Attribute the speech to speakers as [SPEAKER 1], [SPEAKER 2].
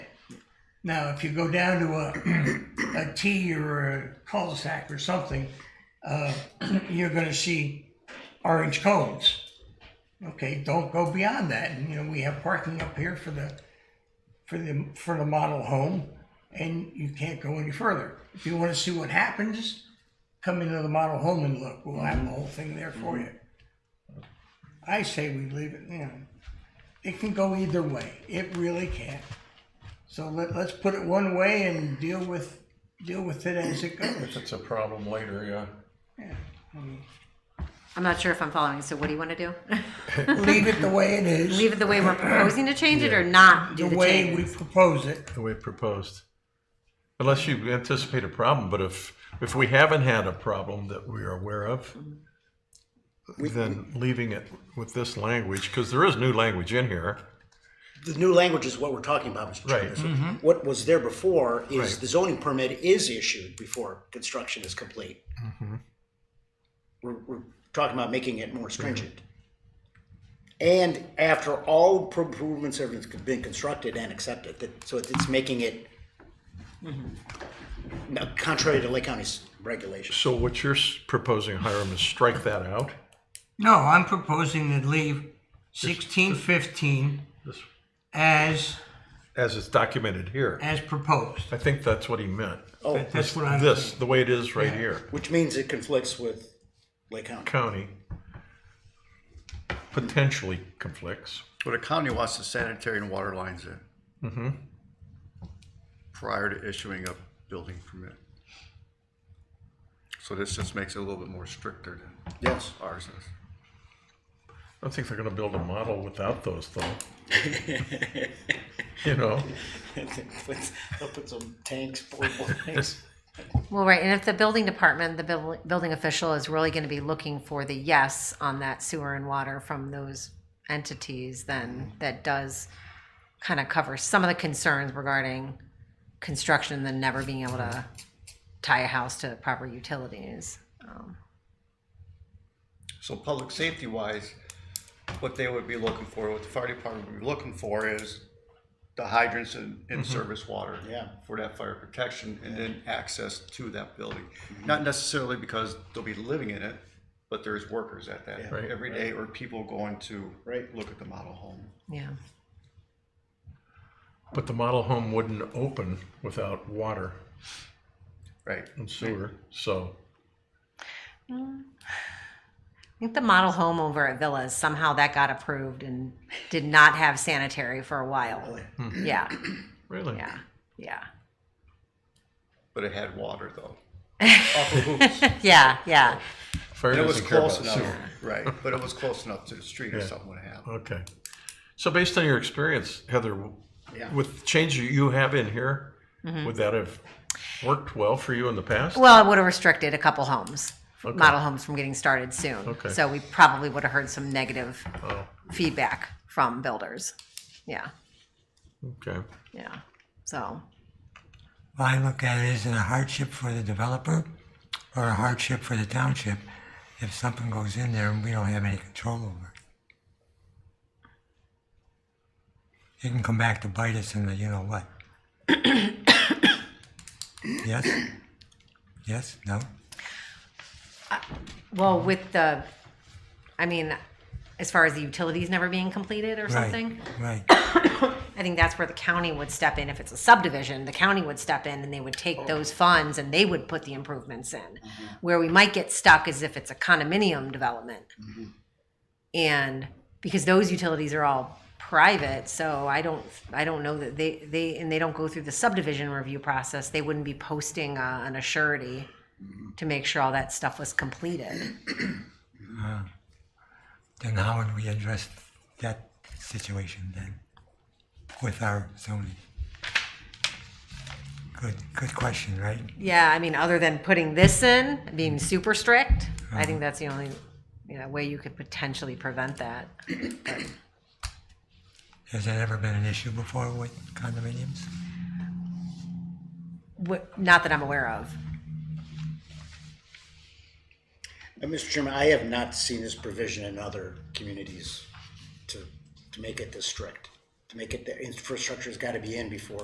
[SPEAKER 1] Now, if you go down to a, a T or a cul-de-sac or something, uh, you're gonna see orange cones. Okay, don't go beyond that, and, you know, we have parking up here for the, for the, for the model home, and you can't go any further. If you wanna see what happens, come into the model home and look, we'll have the whole thing there for you. I say we leave it, you know, it can go either way, it really can. So let, let's put it one way and deal with, deal with it as it
[SPEAKER 2] If
[SPEAKER 1] goes.
[SPEAKER 2] it's a problem later, yeah.
[SPEAKER 1] Yeah, I mean,
[SPEAKER 3] I'm not sure if I'm following. So what do you want to do?
[SPEAKER 1] Leave it the way it is.
[SPEAKER 3] Leave it the way we're proposing to change it or not do
[SPEAKER 1] the
[SPEAKER 3] the
[SPEAKER 1] way we
[SPEAKER 3] change?
[SPEAKER 1] propose it.
[SPEAKER 2] The way proposed. Unless you anticipate a problem, but if, if we haven't had a problem that we are aware of, then leaving it with this language, because there is new language in here.
[SPEAKER 4] The new language is what we're talking about, Mr. Chairman.
[SPEAKER 2] Right.
[SPEAKER 4] So What was there before is
[SPEAKER 2] Right.
[SPEAKER 4] the zoning permit is issued before construction is complete.
[SPEAKER 2] Mm-hmm.
[SPEAKER 4] We're, we're talking about making it more
[SPEAKER 2] Mm-hmm.
[SPEAKER 4] stringent. And after all pro- improvements have been constructed and accepted, that- so it's making it Now, contrary to Lake County's regulations.
[SPEAKER 2] So what you're s- proposing, Hiram, is strike that out?
[SPEAKER 1] No, I'm proposing to leave sixteen fifteen
[SPEAKER 2] this-
[SPEAKER 1] as,
[SPEAKER 2] As it's documented here.
[SPEAKER 1] as proposed.
[SPEAKER 2] I think that's what he meant.
[SPEAKER 4] Oh,
[SPEAKER 1] That's what I'm,
[SPEAKER 2] This, the way it is right here,
[SPEAKER 4] which means it conflicts with Lake County.
[SPEAKER 2] county potentially conflicts.
[SPEAKER 5] But a county wants the sanitary and water lines in. Prior to issuing a building permit. So this just makes it a little bit more stricter than
[SPEAKER 4] Yes.
[SPEAKER 5] ours is.
[SPEAKER 2] I don't think they're gonna build a model without those though. You know,
[SPEAKER 4] They'll put some tanks, portable tanks.
[SPEAKER 3] Well, right. And if the building department, the buil- building official is really going to be looking for the yes on that sewer and water from those entities, then that does kind of cover some of the concerns regarding construction and then never being able to tie a house to proper utilities.
[SPEAKER 5] So public safety wise, what they would be looking for, what the fire department would be looking for is the hydrants and,
[SPEAKER 2] Mm-hmm.
[SPEAKER 5] and service water.
[SPEAKER 4] Yeah.
[SPEAKER 5] For that fire protection and then access to that building.
[SPEAKER 4] Mm-hmm.
[SPEAKER 5] Not necessarily because they'll be living in it, but there's workers at that
[SPEAKER 2] Right.
[SPEAKER 5] every day or people going to.
[SPEAKER 4] Right.
[SPEAKER 5] Look at the model home.
[SPEAKER 3] Yeah.
[SPEAKER 2] but the model home wouldn't open without water
[SPEAKER 5] Right.
[SPEAKER 2] and sewer, so.
[SPEAKER 3] I think the model home over at Villas, somehow that got approved and did not have sanitary for a while. Yeah,
[SPEAKER 2] Really?
[SPEAKER 3] yeah, yeah.
[SPEAKER 5] But it had water though. Off of hoops.
[SPEAKER 3] Yeah, yeah.
[SPEAKER 2] Fire
[SPEAKER 5] It was
[SPEAKER 2] doesn't care about
[SPEAKER 5] close enough,
[SPEAKER 2] sewer.
[SPEAKER 5] right, but it was close enough to the street if something would happen.
[SPEAKER 2] Okay. So based on your experience, Heather,
[SPEAKER 4] Yeah.
[SPEAKER 2] with the change you have in here, would that have worked well for you in the past?
[SPEAKER 3] Mm-hmm. Well, it would have restricted a couple homes, model homes from getting started soon.
[SPEAKER 2] Okay.
[SPEAKER 3] So we probably would have heard some negative feedback from builders. Yeah,
[SPEAKER 2] Okay.
[SPEAKER 3] yeah. So,
[SPEAKER 6] I look at it as a hardship for the developer or a hardship for the township if something goes in there and we don't have any control over it. It can come back to bite us in the you know what. yes? Yes? No?
[SPEAKER 3] well, with the, I mean, as far as the utilities never being completed or something.
[SPEAKER 6] Right.
[SPEAKER 3] I think that's where the county would step in. If it's a subdivision, the county would step in and they would take those funds and they would put the improvements in. Where we might get stuck is if it's a condominium development. And because those utilities are all private, so I don't, I don't know that they, they, and they don't go through the subdivision review process, they wouldn't be posting uh, an assurity to make sure all that stuff was completed.
[SPEAKER 6] Then how would we address that situation then with our zoning? Good, good question, right?
[SPEAKER 3] Yeah, I mean, other than putting this in, being super strict, I think that's the only, you know, way you could potentially prevent that.
[SPEAKER 6] Has that ever been an issue before with condominiums?
[SPEAKER 3] What, not that I'm aware of.
[SPEAKER 4] And Mr. Uh, Chairman, I have not seen this provision in other communities to, to make it this strict, to make it, the infrastructure's gotta be in before